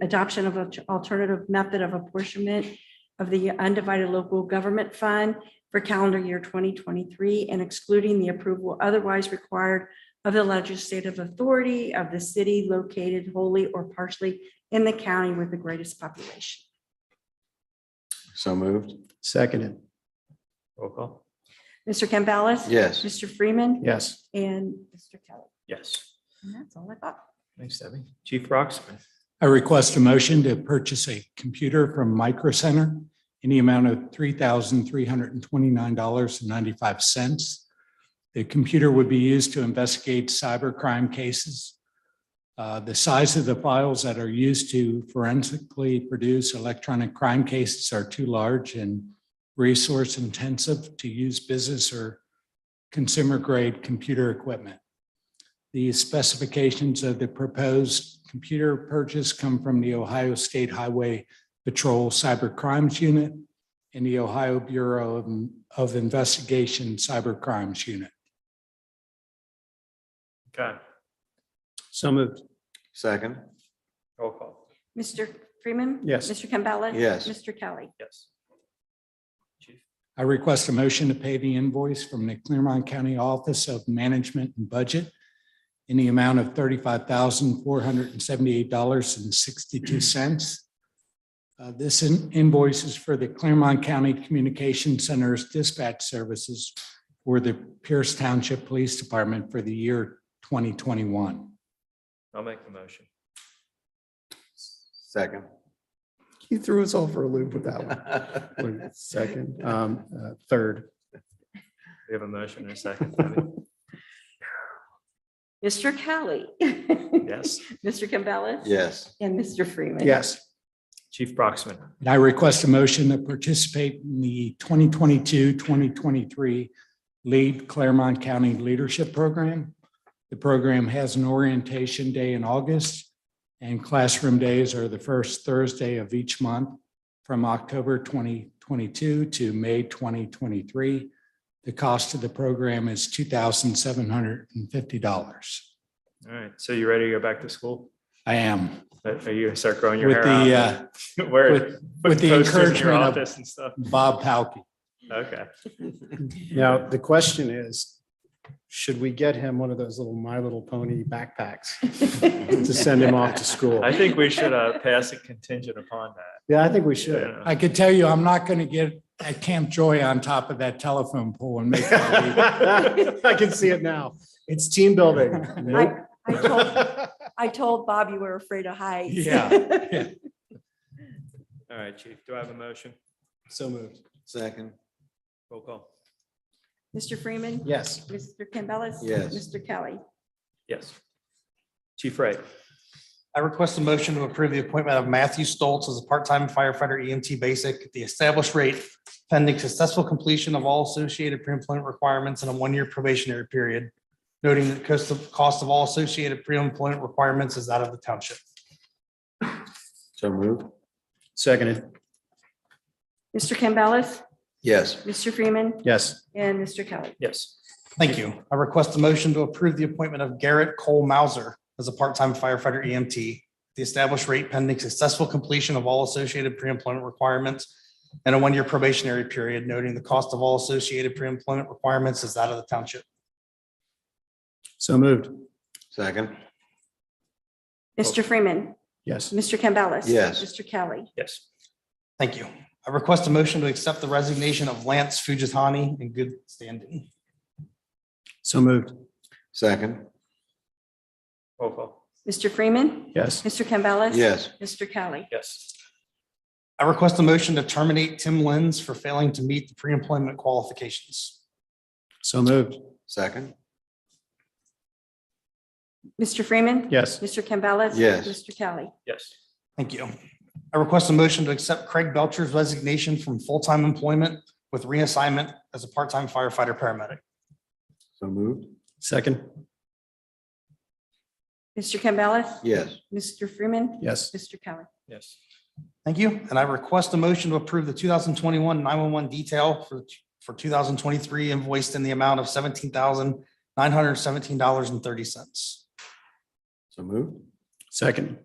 adoption of an alternative method of apportionment of the undivided local government fund for calendar year 2023 and excluding the approval otherwise required of the legislative authority of the city located wholly or partially in the county with the greatest population. So moved. Seconded. Roll call. Mr. Campbell. Yes. Mr. Freeman. Yes. And Mr. Kelly. Yes. And that's all I got. Thanks, Debbie. Chief Rocksmith. I request a motion to purchase a computer from Micro Center in the amount of three thousand three hundred and twenty-nine dollars and ninety-five cents. The computer would be used to investigate cybercrime cases. Uh, The size of the files that are used to forensically produce electronic crime cases are too large and resource intensive to use business or consumer grade computer equipment. The specifications of the proposed computer purchase come from the Ohio State Highway Patrol Cyber Crimes Unit and the Ohio Bureau of- of Investigation Cyber Crimes Unit. Okay. So moved. Second. Roll call. Mr. Freeman. Yes. Mr. Campbell. Yes. Mr. Kelly. Yes. Chief. I request a motion to pay the invoice from the Claremont County Office of Management and Budget in the amount of thirty-five thousand, four hundred and seventy-eight dollars and sixty-two cents. Uh, This in- invoice is for the Claremont County Communication Center's dispatch services for the Pierce Township Police Department for the year twenty twenty-one. I'll make the motion. Second. He threw us all for a loop with that one. Wait, Second, um, uh, third, We have a motion and a second. Debbie. Mr. Kelly. Yes. Mr. Campbell. Yes. And Mr. Freeman. yes, Chief Broxman. And I request a motion to participate in the 2022, 2023 Lead Claremont County Leadership Program. The program has an orientation day in August, and classroom days are the first Thursday of each month from October 2022 to May 2023. The cost of the program is $2,750. All right. So you ready to go back to school? Uh, I am Are you start growing your with the, hair out? uh, Where- with- put with the posters in your encouragement of- Office and stuff. Bob Palkey. Okay. Now, the question is, should we get him one of those little My Little Pony backpacks to send him off to school? I think we should uh, pass a contingent upon that. Yeah, I think we you should. know. I could tell you, I'm not going to get at Camp Joy on top of that telephone pole and make. that leap. I can see it now. It's team building. Nope. I I told, I told Bob you were afraid of heights. Yeah. Yeah. All right, Chief. Do I have a motion? So moved. Second. Roll call. Mr. Freeman. Yes, Mr. Campbell. Yes. Mr. Kelly. Yes. Chief Wright. I request a motion to approve the appointment of Matthew Stoltz as a part-time firefighter EMT basic at the established rate pending successful completion of all associated pre-employment requirements and a one-year probationary period, noting that cost of, cost of all associated pre-employment requirements is out of the township. So moved. seconded. Mr. Campbell. Yes. Mr. Freeman. Yes, And Mr. Oh. Kelly. Yes. Thank you. I request a motion to approve the appointment of Garrett Cole Mauser as a part-time firefighter EMT, the established rate pending successful completion of all associated pre-employment requirements and a one-year probationary period, noting the cost of all associated pre-employment requirements is out of the township. so moved. Second. Mr. Freeman. Yes, Mr. Campbell. Yes. Mr. Kelly. Yes. Thank you. I request a motion to accept the resignation of Lance Fujitani in good standing. so moved. Second. Roll call. Mr. Freeman. Yes, Mr. Campbell. Yes. Mr. Kelly. Yes. I request a motion to terminate Tim Lenz for failing to meet the pre-employment qualifications. so moved. Second. Mr. Freeman. Yes, Mr. Campbell. Yes. Mr. Kelly. Yes. Thank you. I request a motion to accept Craig Belcher's resignation from full-time employment with reassignment as a part-time firefighter paramedic. So moved. second. Mr. Campbell. Yes. Mr. Freeman. Yes, Mr. Kelly. Yes. Thank you. And I request a motion to approve the 2021 911 detail for, for 2023 invoiced in the amount of $17,917.30. So moved. second.